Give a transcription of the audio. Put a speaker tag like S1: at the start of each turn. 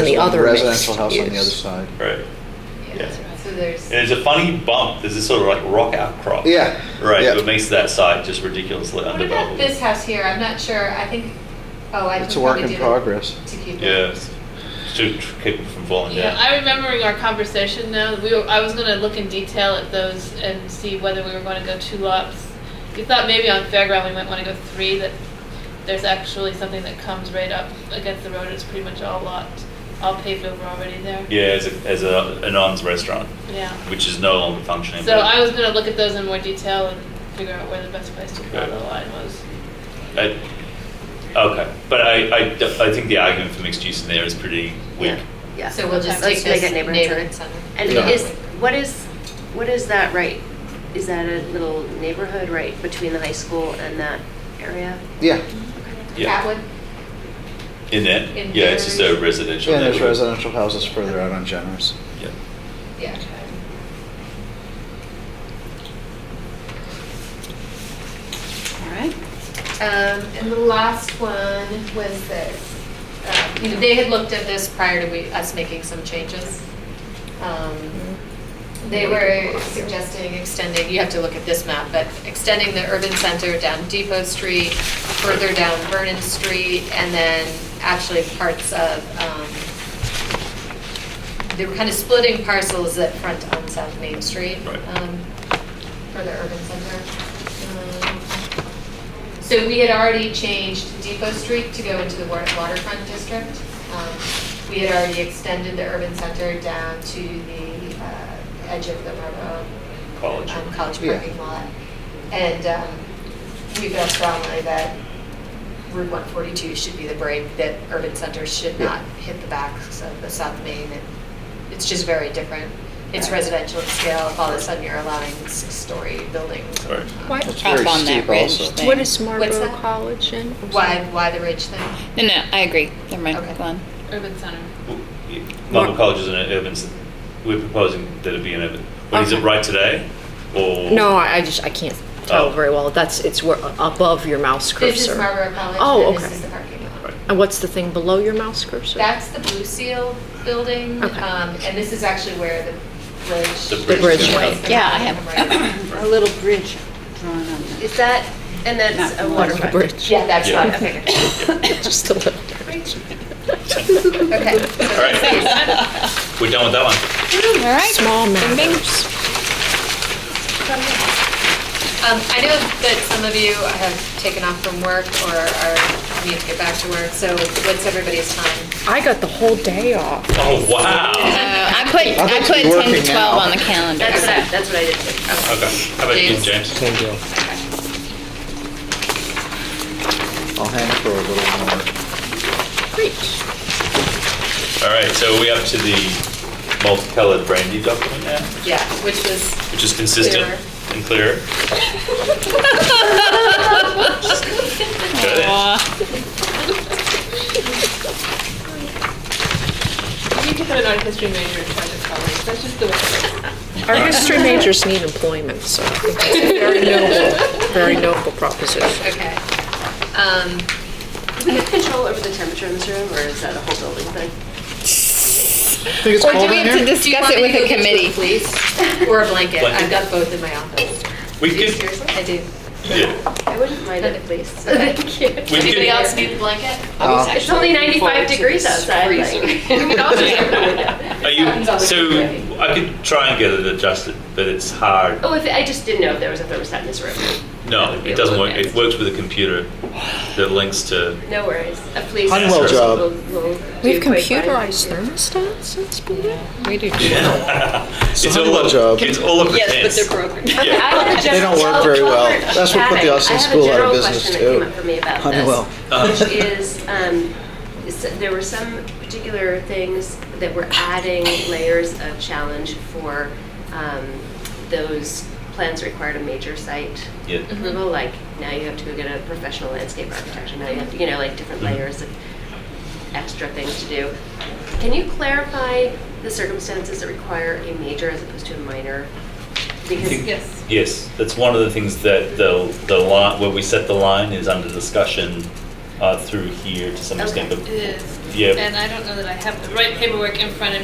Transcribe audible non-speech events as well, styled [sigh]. S1: on the other mixed
S2: Residential house on the other
S1: use.
S2: side.
S3: Right.
S4: Yeah, so there's.
S3: And it's a funny bump. There's this sort of like rock outcrop.
S2: Yeah,
S3: Right.
S2: yeah.
S3: That makes that side just ridiculously
S4: What about
S3: underdeveloped.
S4: this house here? I'm not sure. I think, oh, I.
S2: It's
S4: could
S2: a work
S4: probably
S2: in
S4: do it
S2: progress.
S4: To keep it.
S3: Yeah. To tr- keep it from falling
S5: Yeah,
S3: down.
S5: I'm remembering our conversation now. We were, I was gonna look in detail at those and see whether we were gonna go two lots. We thought maybe on Fairground we might wanna go three, that there's actually something that comes right up against the road, it's pretty much all lot, all paved over already there.
S3: yeah, as a, as a an arms restaurant,
S5: Yeah.
S3: which is no longer functioning.
S5: So
S3: but
S5: I was gonna look at those in more detail and figure out where the best place to draw
S3: Okay.
S5: the line was.
S3: I- okay, but I, I, I think the argument for mixed use in there is pretty weak.
S1: Yeah, yeah.
S4: So we'll just
S1: Let's
S4: take
S1: make
S4: this
S1: it neighborhood
S4: neighborhood
S1: center.
S4: center.
S1: And
S2: Yeah.
S1: is, what is, what is that right? Is that a little neighborhood right between the high school and that area?
S2: Yeah,
S3: Yeah.
S4: Catwood?
S3: In there,
S4: In
S3: yeah, it's just a
S4: there.
S3: residential.
S2: and there's
S3: neighborhood.
S2: residential houses further out on Generous.
S3: Yeah.
S4: Yeah.
S1: All right.
S4: Um, and the last one was this, uh, you know, they had looked at this prior to we, us making some changes. Um, They were suggesting extending, you have to look at this map, but extending the urban center down Depot Street, further down Vernon Street, and then actually parts of, um, they were kind of splitting parcels that front on South Main Street.
S3: Right.
S4: um, For the urban center. Um, so we had already changed Depot Street to go into the wa- waterfront district. Um, We had already extended the urban center down to the uh, edge of the Marlboro.
S3: College.
S4: um, College
S2: Yeah.
S4: parking lot. And um, we felt strongly that Route 142 should be the break, that urban centers should
S2: Yeah.
S4: not hit the backs of the South Main. and It's just very different. It's
S1: Right.
S4: residential in scale, if all of a sudden you're allowing six-story buildings. Um,
S3: Right.
S6: Why
S2: That's
S6: up
S2: very
S6: on that
S2: steep
S6: ridge
S2: also.
S6: thing?
S7: What is
S4: What's
S7: Marlboro
S4: that?
S7: College in?
S4: Why, why the ridge thing?
S6: No, no, I agree. Never mind.
S4: Okay.
S6: Go on.
S5: Urban Center.
S3: Marble College is an urban, c- we're proposing that it be an urban, but is it
S7: Okay.
S3: right today? Or?
S7: No, I I just, I can't
S3: Oh.
S7: tell very well. That's, it's where- above your mouse cursor.
S4: This is Marlboro College.
S7: Oh,
S4: and This
S7: okay.
S4: is the parking lot.
S3: Right.
S7: And what's the thing below your mouse cursor?
S4: That's the Blue Seal building,
S7: Okay.
S4: um, and this is actually where the bridge.
S3: The bridge. The bridge,
S7: right.
S6: Yeah, I have-
S4: Right.
S6: A little bridge drawn on that.
S1: Is that, and that's
S6: Not
S1: a
S6: from
S7: Over the
S1: waterfront?
S7: bridge.
S4: Yeah, that's
S3: Yeah.
S4: fine.
S1: Okay, good.
S7: [laughs] [coughs] Just a little.
S4: Okay.
S3: All right, we're done with that one.
S6: [laughs] All right.
S7: Small
S6: Bing, bing.
S7: matters.
S4: Um, I know that some of you have taken off from work or are, need to get back to work, so what's everybody's time?
S7: I got the whole day off.
S3: Oh, wow.
S6: Uh, I put
S2: I'll
S6: I
S2: just
S6: put 10
S2: be working
S6: to 12
S2: now.
S6: on the calendar.
S1: That's what I, that's what I did too.
S3: Okay, how about you, James?
S2: I'll hang for a little more.
S3: All right, so are we up to the multicolored brandy document now,
S4: Yeah, which was,
S3: which is consistent
S4: Clearer.
S3: and clear.
S6: Aw.
S5: We need to put an art history major in charge of colors, that's just the way. it is.
S7: Our history majors need employment, so I think it's
S6: [laughs]
S7: a very noble, very noble proposition.
S4: okay. Um,
S1: Do we have control over the temperature in this room, or is that a whole building thing?
S2: Think it's
S6: Or do
S2: cold
S6: we
S2: in
S6: have to
S2: here?
S4: do you
S6: discuss
S4: want
S6: it
S4: me
S6: with
S4: to go
S6: a
S4: get you
S6: committee?
S4: Fleece or a blanket?
S3: Blanket.
S4: I've got both in my office.
S3: We
S4: Do you
S3: could,
S4: seriously? I do.
S3: yeah,
S1: I wouldn't mind it, [laughs] please.
S4: Thank you.
S3: We
S4: Anybody
S3: do.
S4: else need a blanket?
S2: Uh,
S1: It's only 95 degrees outside.
S3: are you, so I could try and get it adjusted, but it's hard.
S1: [laughs] Oh, if, I just didn't know if there was a thermostat in this room.
S3: No, it doesn't work, it works with a computer that links to,
S1: No worries. A police.
S2: Honeywell job.
S1: will- will
S7: We've
S1: do quite fine.
S7: computerized thermostats, that's been,
S6: We do.
S3: it's all,
S2: Honeywell job.
S3: up- it's all up to
S6: Yes,
S3: chance.
S6: but they're broken.
S3: Yeah.
S6: [laughs]
S2: They don't work very well. That's what put the Austin School out of business
S1: I have a general
S2: too.
S1: question that came up for me about this.
S2: Honeywell.
S1: Which is, um, is that there were some particular things that were adding layers of challenge for um, those plans that required a major site
S3: Yeah.
S1: approval, like now you have to go get a professional landscape architect, and now you have, to- you know, like different layers of extra things to do. Can you clarify the circumstances that require a major as opposed to a minor? Because
S4: Yes.
S3: Yes, that's one of the things that the, the line, where we set the line is under discussion uh, through here to some extent, but
S5: It is.
S3: Yeah.
S5: And I don't know that I have the right paperwork in front of